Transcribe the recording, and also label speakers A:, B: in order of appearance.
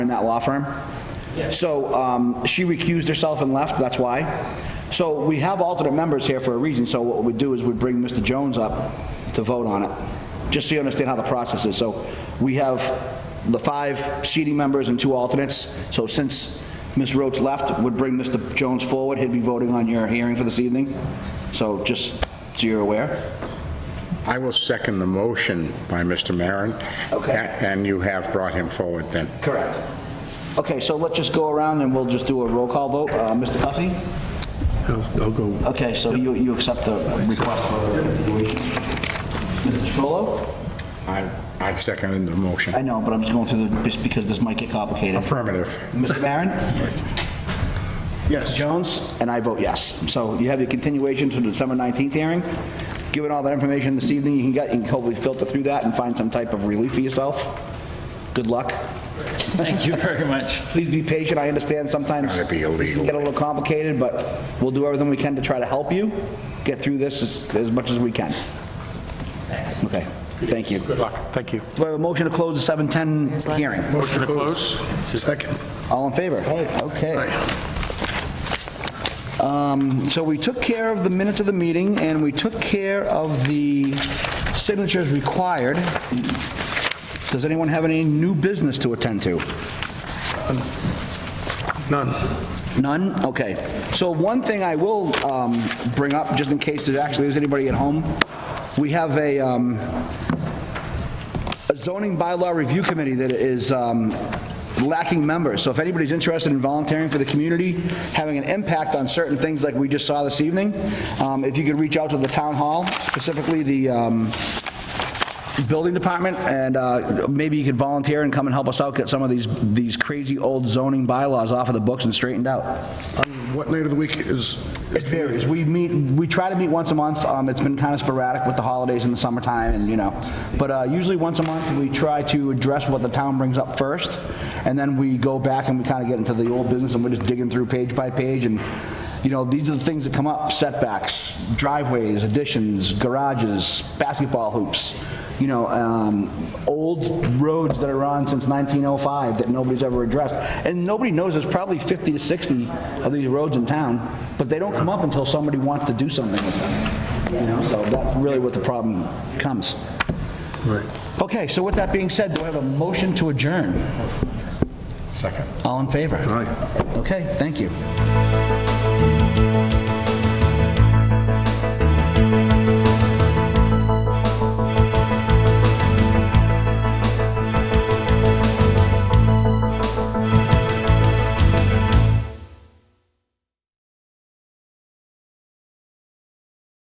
A: in that law firm. So um, she recused herself and left, that's why. So we have alternate members here for a reason, so what we do is we bring Mr. Jones up to vote on it, just so you understand how the process is. So we have the five seating members and two alternates, so since Ms. Rhodes left, would bring Mr. Jones forward, he'd be voting on your hearing for this evening, so just so you're aware.
B: I will second the motion by Mr. Maron.
A: Okay.
B: A- And you have brought him forward then.
A: Correct. Okay, so let's just go around and we'll just do a roll call vote. Uh, Mr. Cussy?
C: I'll I'll go,
A: Okay, so you, you accept the request for continuation? Mr. Chacolo?
B: I, I second the motion.
A: I know, but I'm just going through the, just because this might get complicated.
B: Affirmative.
A: Mr. Maron?
B: Yes.
A: Jones? And I vote yes. So you have your continuation to the December 19th hearing. Given all that information this evening, you can get, you can hopefully filter through that and find some type of relief for yourself. Good luck.
D: Thank you very much.
A: Please be patient, I understand sometimes.
B: Gotta be illegal.
A: It can get a little complicated, but we'll do everything we can to try to help you get through this as, as much as we can. Okay, thank you.
C: good luck, thank you.
A: Do I have a motion to close the 7:10 hearing?
C: Motion to close? Second.
A: All in favor? Okay. Um, So we took care of the minutes of the meeting, and we took care of the signatures required. Does anyone have any new business to attend to?
C: None.
A: None? Okay. So one thing I will um, bring up, just in case there actually is anybody at home, we have a um, a zoning bylaw review committee that is um, lacking members. So if anybody's interested in volunteering for the community, having an impact on certain things like we just saw this evening, um, if you could reach out to the town hall, specifically the um, building department, and uh, maybe you could volunteer and come and help us out, get some of these, these crazy old zoning bylaws off of the books and straightened out.
E: What night of the week is?
A: It varies. We meet, we try to meet once a month. Um, It's been kind of sporadic with the holidays in the summertime and, you know. But uh, usually once a month, we try to address what the town brings up first. And then we go back and we kind of get into the old business and we're just digging through page by page. And, you know, these are the things that come up, setbacks, driveways, additions, garages, basketball hoops, you know, um, old roads that are on since 1905 that nobody's ever addressed. And nobody knows, there's probably 50 to 60 of these roads in town, but they don't come up until somebody wants to do something with them. You know, so that's really what the problem comes. Okay, so with that being said, do I have a motion to adjourn?
B: Second.
A: All in favor? Okay, thank you.